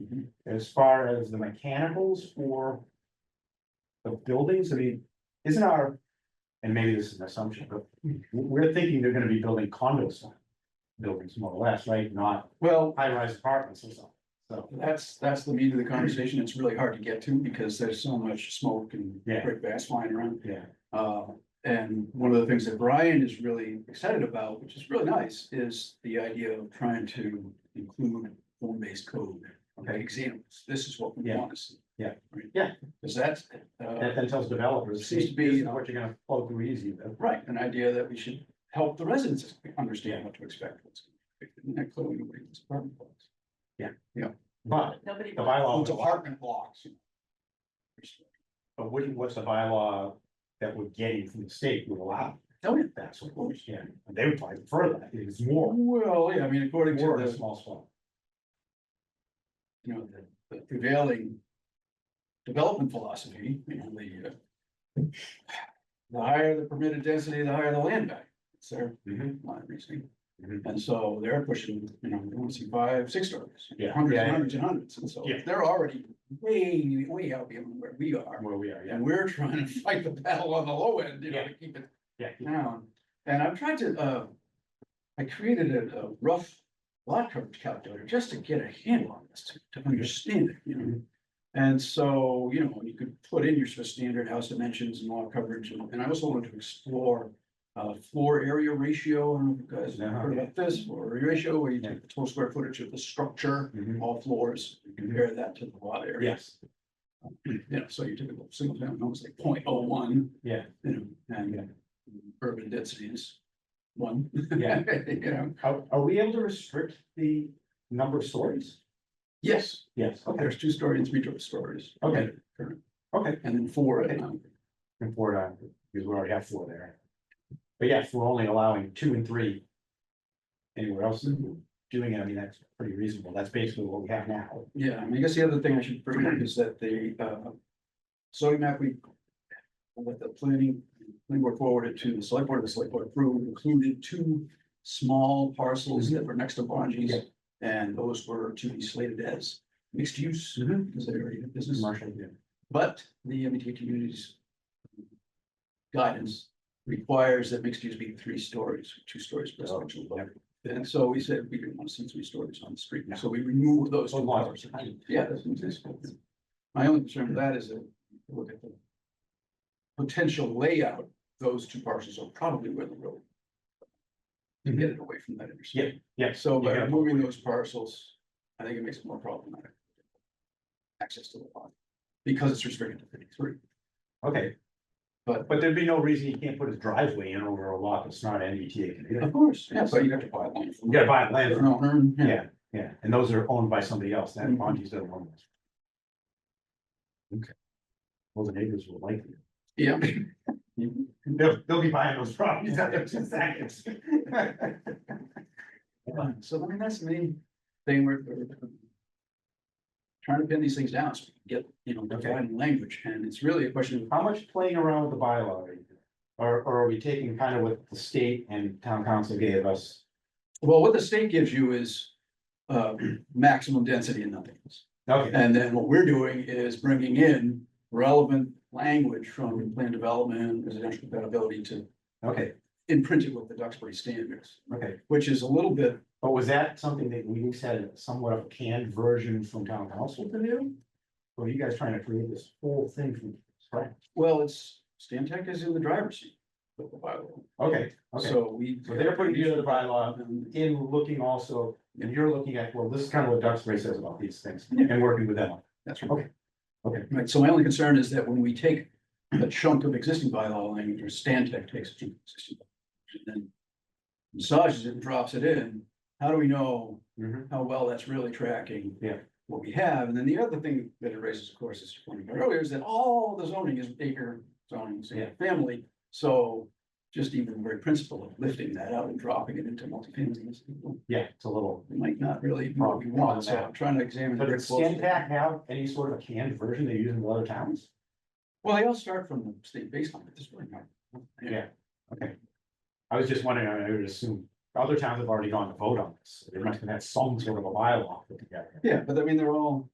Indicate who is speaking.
Speaker 1: as far as the mechanicals for. The buildings, I mean, isn't our, and maybe this is an assumption, but we're thinking they're gonna be building condos. now, Buildings more or less, right, not
Speaker 2: Well,
Speaker 1: high rise apartments or something, so.
Speaker 2: that's, that's the meat of the conversation. It's really hard to get to because there's so much smoke and
Speaker 1: Yeah.
Speaker 2: brick bats flying around.
Speaker 1: Yeah.
Speaker 2: Uh, and one of the things that Brian is really excited about, which is really nice, is the idea of trying to include form-based code. Okay, examples, this is what we
Speaker 1: Yeah.
Speaker 2: want to see.
Speaker 1: Yeah.
Speaker 2: Right?
Speaker 1: Yeah.
Speaker 2: Because that's, uh,
Speaker 1: That then tells developers,
Speaker 2: Seems
Speaker 1: this
Speaker 2: to be-
Speaker 1: is what you're gonna flow through easy, though.
Speaker 2: right, an idea that we should help the residents understand what to expect. what's expected, And that clearly would be this apartment blocks.
Speaker 1: but
Speaker 3: Nobody.
Speaker 1: the bylaw.
Speaker 2: It's apartment blocks.
Speaker 1: But what, what's the bylaw that we're getting from the state would allow?
Speaker 2: Tell me.
Speaker 1: That's what we're, yeah, they would probably prefer that, it's more,
Speaker 2: Well, yeah, I mean, according to
Speaker 1: more of a
Speaker 2: the,
Speaker 1: small spot.
Speaker 2: you know, the the prevailing. Development philosophy, you know, the. uh, The higher the permitted density, the higher the land value. It's their line of reasoning.
Speaker 1: Mhm.
Speaker 2: And so they're pushing, you know, they want to see five, six stories.
Speaker 1: Yeah.
Speaker 2: Hundreds
Speaker 1: Yeah,
Speaker 2: and
Speaker 1: yeah.
Speaker 2: hundreds and hundreds. And so
Speaker 1: Yeah.
Speaker 2: they're already way, way out beyond where we are.
Speaker 1: Where we are, yeah,
Speaker 2: And we're trying to fight the battle on the low end, you know, to keep it
Speaker 1: yeah,
Speaker 2: down, and I've tried to, uh. I created a, a rough lot coverage calculator just to get a handle on this, to, to understand it, you know?
Speaker 1: Mhm.
Speaker 2: And so, you know, you could put in your sort of standard house dimensions and lot coverage, and, and I also wanted to explore. Uh, floor area ratio, I don't know if you guys have heard about this, floor area ratio, where you take the total square footage of the structure,
Speaker 1: Mhm.
Speaker 2: all floors, and compare that to the lot area.
Speaker 1: yes,
Speaker 2: You know, so your typical single family home is like 0.01,
Speaker 1: yeah,
Speaker 2: you know, and uh, urban density is one,
Speaker 1: yeah.
Speaker 2: you know,
Speaker 1: Are, are we able to restrict the number of stories?
Speaker 2: yes,
Speaker 1: Yes, okay,
Speaker 2: there's two story and three stories.
Speaker 1: Okay. okay,
Speaker 2: And then four, and, um,
Speaker 1: and four, uh, because we already have four there. But yes, we're only allowing two and three. Anywhere else that we're doing it, I mean, that's pretty reasonable, that's basically what we have now.
Speaker 2: yeah, I mean, I guess the other thing I should bring up is that the, uh, so map we with the planning, planning board forwarded to the select board, the select board approved, included two small parcels that were next to Bonji's.
Speaker 1: Yeah.
Speaker 2: And those were to be slated as mixed use,
Speaker 1: Mm-hmm.
Speaker 2: because they already have business.
Speaker 1: Commercial, yeah.
Speaker 2: But the MBTA communities. Guidance requires that mixed use be three stories, two stories per structural level. And so we said we didn't want to see three stories on the street, so we removed those
Speaker 1: Oh,
Speaker 2: two
Speaker 1: lots.
Speaker 2: cars. Yeah, that's what this is. My only concern with that is that, if you look at the. Potential layout, those two parcels are probably where the road. To get it away from that intersection.
Speaker 1: Mm-hmm. yeah,
Speaker 2: So by
Speaker 1: yeah.
Speaker 2: removing those parcels, I think it makes it more problematic. Access to the lot, because it's restricted to fifty-three.
Speaker 1: Okay.
Speaker 2: But-
Speaker 1: But there'd be no reason you can't put his driveway in over a lot that's not an MBTA community.
Speaker 2: course. Yeah, so you have to buy land.
Speaker 1: You gotta buy land,
Speaker 2: An owner, and- yeah.
Speaker 1: yeah, yeah, and those are owned by somebody else, that
Speaker 2: Mhm.
Speaker 1: Bonji's doesn't own those. Okay. Well, the neighbors will like you,
Speaker 2: Yeah.
Speaker 1: they'll, they'll be buying those properties out there in seconds.
Speaker 2: Yeah, So I mean, that's the main thing we're. we're Trying to pin these things down, so we can get, you know,
Speaker 1: Okay.
Speaker 2: defining language, and it's really a question of,
Speaker 1: How much playing around with the bylaw are you doing? Or, or are we taking kind of what the state and town council gave us?
Speaker 2: well, what the state gives you is. Uh, maximum density and nothing else.
Speaker 1: Okay,
Speaker 2: And then what we're doing is bringing in relevant language from plan development, residential compatibility to.
Speaker 1: okay,
Speaker 2: Imprint it with the Duxbury standards,
Speaker 1: okay.
Speaker 2: which is a little bit
Speaker 1: But was that something that we said somewhat of a canned version from town council to do? Or are you guys trying to create this whole thing from scratch?
Speaker 2: Well, it's, Stan Tech is in the driver's seat. of the bylaw.
Speaker 1: Okay, okay.
Speaker 2: So we.
Speaker 1: So they're putting together the bylaw
Speaker 2: And
Speaker 1: In looking also, and you're looking at, well, this is kind of what Duxbury says about these things
Speaker 2: Yeah.
Speaker 1: and working with them.
Speaker 2: That's
Speaker 1: Okay.
Speaker 2: right.
Speaker 1: Okay.
Speaker 2: Right, so my only concern is that when we take a chunk of existing bylaw language, or Stan Tech takes a chunk of existing. bylaw language and then Massages it and drops it in, how do we know
Speaker 1: Mhm.
Speaker 2: how well that's really tracking?
Speaker 1: Yeah.
Speaker 2: What we have, and then the other thing that it raises, of course, is pointed out earlier, is that all the zoning is acre zoning, so
Speaker 1: Yeah.
Speaker 2: family, so. Just even the very principle of lifting that out and dropping it into multifamily, is, it
Speaker 1: Yeah, it's a little,
Speaker 2: might not really be what we want, so I'm trying to examine.
Speaker 1: but
Speaker 2: very
Speaker 1: does
Speaker 2: closely.
Speaker 1: Scanpack have any sort of a canned version they use in other towns?
Speaker 2: Well, they all start from the state baseline, but there's really not.
Speaker 1: Yeah, okay. I was just wondering, I would assume other towns have already gone to vote on this. They must have had some sort of a bylaw put together.
Speaker 2: Yeah, but I mean, they're all